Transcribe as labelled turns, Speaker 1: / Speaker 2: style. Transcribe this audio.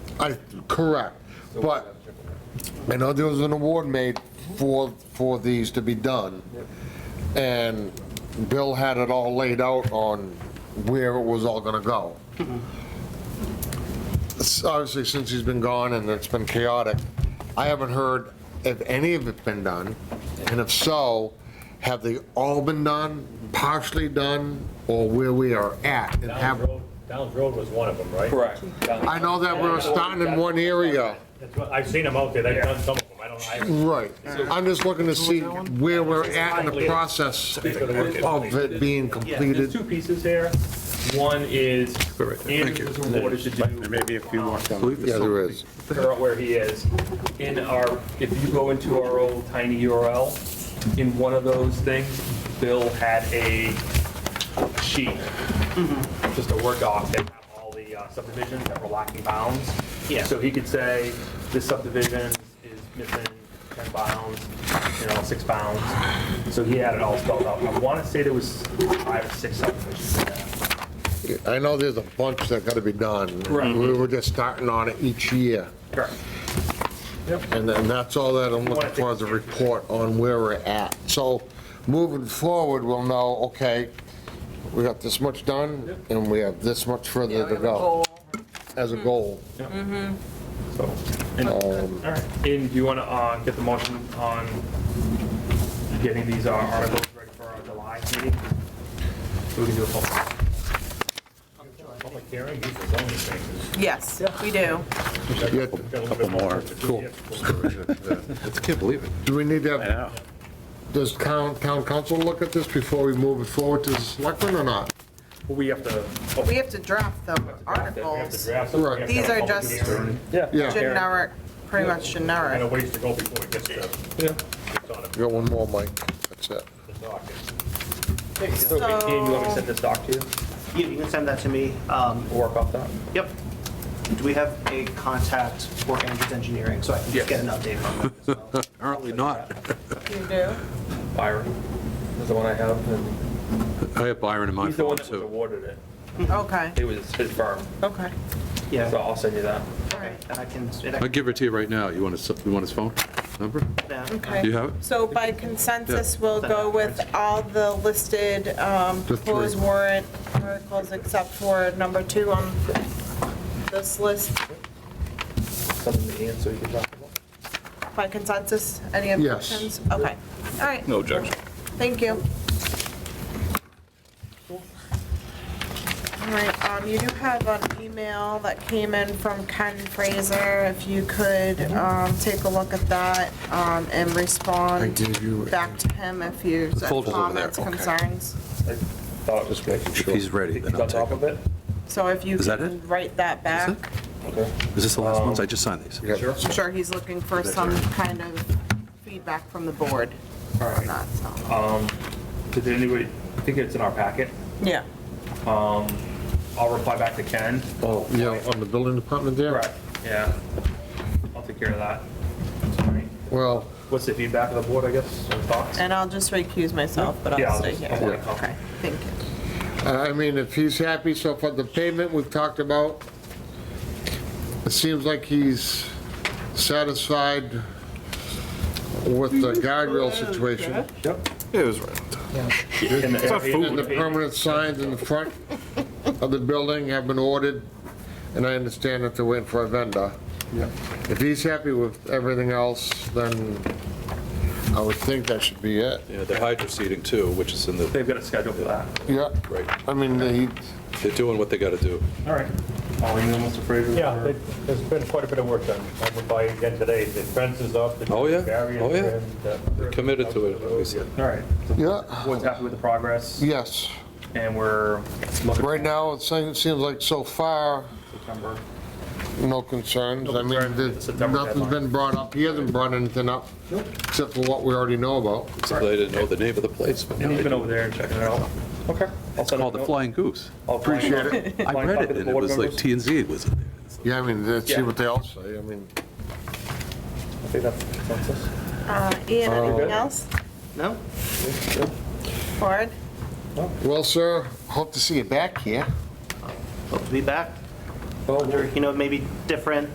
Speaker 1: I, correct, but I know there was an award made for, for these to be done, and Bill had it all laid out on where it was all gonna go. S- Obviously, since he's been gone and it's been chaotic, I haven't heard if any of it's been done, and if so, have they all been done, partially done, or where we are at? and have.
Speaker 2: Downs Road, Downs Road was one of them, right?
Speaker 3: Correct.
Speaker 1: I know that we're starting in one area.
Speaker 2: That's what- I've seen them out there, they've done some of them, I don't, I,
Speaker 1: Right. I'm just looking to see where we're at in the process of it being
Speaker 2: yeah,
Speaker 1: completed.
Speaker 2: there's two pieces here. One is, Andrew was awarded to do.
Speaker 4: Maybe if you walk down.
Speaker 1: Yeah, there is.
Speaker 2: figure out where he is. In our, if you go into our old tiny URL, in one of those things, Bill had a sheet, just a Word doc that had all the uh, subdivisions that were lacking bounds.
Speaker 5: Yeah.
Speaker 2: So he could say, this subdivision is missing 10 bounds, you know, six bounds. So he had it all spelled out. I want to say there was five or six subdivisions in there.
Speaker 1: I know there's a bunch that gotta be done. We were just starting on it each year.
Speaker 2: Correct.
Speaker 1: And then that's all that I'm looking for, is a report on where we're at. So moving forward, we'll know, okay, we got this much done, and we have this much further to go as a goal.
Speaker 2: So, and, um, all right, and do you want to, uh, get the motion on getting these uh, articles ready for our July meeting? So we can do a public. Public hearing, these are zoning changes.
Speaker 5: Yes, we do.
Speaker 1: Yeah,
Speaker 2: Got a little bit more. Cool.
Speaker 4: I can't believe it.
Speaker 1: Do we need to have
Speaker 4: I know.
Speaker 1: Does town, town council look at this before we move it forward to the selectmen or not?
Speaker 2: We have to.
Speaker 5: We have to draft the articles.
Speaker 1: Right.
Speaker 5: These are just-
Speaker 2: Yeah.
Speaker 1: Yeah,
Speaker 5: Generic, pretty much
Speaker 2: And a
Speaker 5: generic.
Speaker 2: ways to go before it gets to. Yeah. It's on
Speaker 1: you got one more, Mike, that's it.
Speaker 2: the docket.
Speaker 5: So-
Speaker 2: Ian, you want me to send this doc to you,
Speaker 6: Yeah, you can send that to me. Um,
Speaker 2: We'll work off that?
Speaker 6: Yep. Do we have a contact for Andrews Engineering, so I can just get an update from them as well?
Speaker 4: Apparently not.
Speaker 5: You do?
Speaker 2: Byron is the one I have, and
Speaker 4: I have Byron in my
Speaker 2: he's the
Speaker 4: phone
Speaker 2: one that was
Speaker 4: too.
Speaker 2: awarded it.
Speaker 5: Okay,
Speaker 2: It was his firm,
Speaker 5: okay.
Speaker 2: so
Speaker 6: Yeah,
Speaker 2: I'll send you that.
Speaker 5: All right.
Speaker 6: and I can, and I
Speaker 4: I'll give it to you right now. You want his, you want his phone number?
Speaker 6: can,
Speaker 5: Okay.
Speaker 4: You have it?
Speaker 5: So by consensus, we'll go with all the listed um,
Speaker 1: The three.
Speaker 5: proposed warrant articles except for number two on this list.
Speaker 2: Send them to Ian so you can talk about it.
Speaker 5: By consensus, any
Speaker 1: Yes.
Speaker 5: objections? Okay, all right,
Speaker 7: No objection.
Speaker 5: thank you. All right, um, you do have an email that came in from Ken Fraser, if you could um, take a look at that um, and
Speaker 1: I
Speaker 5: respond
Speaker 1: gave you-
Speaker 5: back to him if you
Speaker 4: The
Speaker 5: have
Speaker 4: folder's over there,
Speaker 5: comments,
Speaker 4: okay.
Speaker 5: concerns.
Speaker 2: I thought it was making
Speaker 4: If
Speaker 2: sure.
Speaker 4: he's ready, then
Speaker 2: He's
Speaker 4: I'll
Speaker 2: on top
Speaker 4: take
Speaker 2: of it?
Speaker 5: So if you
Speaker 4: Is that
Speaker 5: can
Speaker 4: it?
Speaker 5: write that
Speaker 4: it?
Speaker 5: back,
Speaker 2: Okay.
Speaker 4: Is this the last ones? I just signed these.
Speaker 1: Yeah.
Speaker 2: Sure.
Speaker 5: I'm sure he's looking for some kind of feedback from the board
Speaker 2: All
Speaker 5: on
Speaker 2: right.
Speaker 5: that, so.
Speaker 4: Uh,
Speaker 2: Um, did anybody, I think it's in our packet.
Speaker 5: Yeah.
Speaker 2: Um, I'll reply back to Ken.
Speaker 1: Oh, yeah, on the building department there?
Speaker 2: Correct. Yeah. I'll take care of that. Alright.
Speaker 1: Well,
Speaker 2: What's the feedback of the board, I guess, or thoughts?
Speaker 5: And I'll just recuse myself, but
Speaker 2: Yeah,
Speaker 5: I'll
Speaker 2: I'll
Speaker 5: stay
Speaker 2: just-
Speaker 5: here.
Speaker 2: I'll walk.
Speaker 5: Okay, thank you.
Speaker 1: I I mean, if he's happy so far, the payment we've talked about, it seems like he's satisfied with the guardrail situation.
Speaker 2: Yep.
Speaker 7: It was right.
Speaker 2: And the-
Speaker 1: And the permanent signs in the front of the building have been ordered, and I understand that they're waiting for a vendor. If he's happy with everything else, then I would think that should be it.
Speaker 7: Yeah, the hydro seeding too, which is in the,
Speaker 2: They've got a schedule for that.
Speaker 1: Yeah,
Speaker 7: right,
Speaker 1: I mean, he,
Speaker 7: they're doing what they gotta do.
Speaker 2: All right. I'll email Mr. Fraser.
Speaker 8: Yeah, there- there's been quite a bit of work done. I went by again today, the fence is up. the
Speaker 7: Oh, yeah.
Speaker 8: barriers
Speaker 7: Oh, yeah.
Speaker 8: are in, the-
Speaker 7: Committed to it, obviously.
Speaker 2: All right.
Speaker 1: yeah,
Speaker 2: Board's happy with the progress
Speaker 1: yes.
Speaker 2: and we're looking.
Speaker 1: Right now, it seems seems like so far,
Speaker 2: September.
Speaker 1: no concerns. I mean,
Speaker 2: concerns.
Speaker 1: there's-
Speaker 2: September
Speaker 1: nothing's been
Speaker 2: deadline.
Speaker 1: brought up. He hasn't brought anything up, except for what we already know about.
Speaker 7: So They didn't know the name of the place. but now
Speaker 2: And he's
Speaker 7: they
Speaker 2: been
Speaker 7: do.
Speaker 2: over there and checking it out. Okay. I'll
Speaker 4: It's
Speaker 2: send
Speaker 4: called the Flying Goose.
Speaker 2: Appreciate
Speaker 1: it.
Speaker 4: I read it and it was like T and Z was in there.
Speaker 1: Yeah, I mean, let's see
Speaker 2: Yeah.
Speaker 1: what they all say. I mean,
Speaker 2: I think that's consensus.
Speaker 5: Uh, Ian, anything else?
Speaker 6: no?
Speaker 5: Board?
Speaker 1: well, sir, hope to see you back here.
Speaker 6: Hope to be back. Wonder, You know, maybe different,